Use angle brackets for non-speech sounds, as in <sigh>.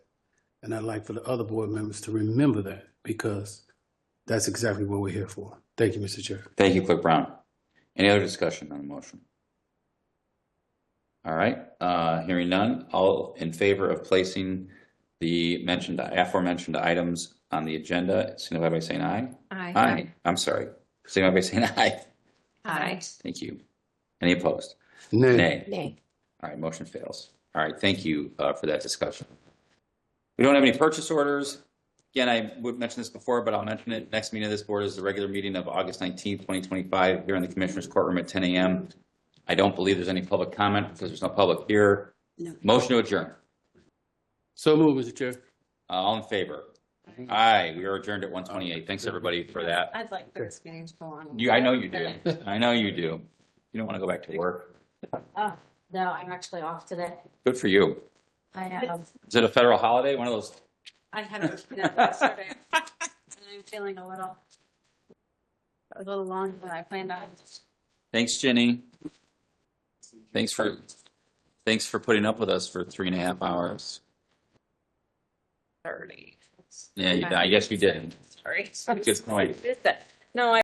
And I'd like for the other board members to remember that because that's exactly what we're here for. Thank you, Mr. Chair. Thank you, Clerk Brown. Any other discussion on the motion? All right, uh, hearing none, all in favor of placing the mentioned, aforementioned items on the agenda, signify by saying aye. Aye. Aye, I'm sorry, signify by saying <laughs> aye. Aye. Thank you. Any opposed? Nay. Nay. Nay. All right, motion fails. All right, thank you uh, for that discussion. We don't have any purchase orders. Again, I would mention this before, but I'll mention it. Next meeting of this board is the regular meeting of August 19th, 2025, here in the Commissioners Courtroom at 10 a.m. I don't believe there's any public comment because there's no public here. No. Motion to adjourn. So moved, Mr. Chair. Uh, All in favor? Aye, we are adjourned at 1:28. Thanks, everybody, for that. I'd like the experience to go on. You, I know you <laughs> do. I know you do. You don't want to go back to work. Oh, no, I'm actually off today. Good for you. I have, Is it a federal holiday? One of those I had a <laughs> kidnap yesterday. And I'm feeling a little, a little longer than I planned on. Thanks, Jenny. Thanks for, thanks for putting up with us for three and a half hours. Thirty. Yeah, you- I guess you did. Sorry. Good point. <laughs> No, I.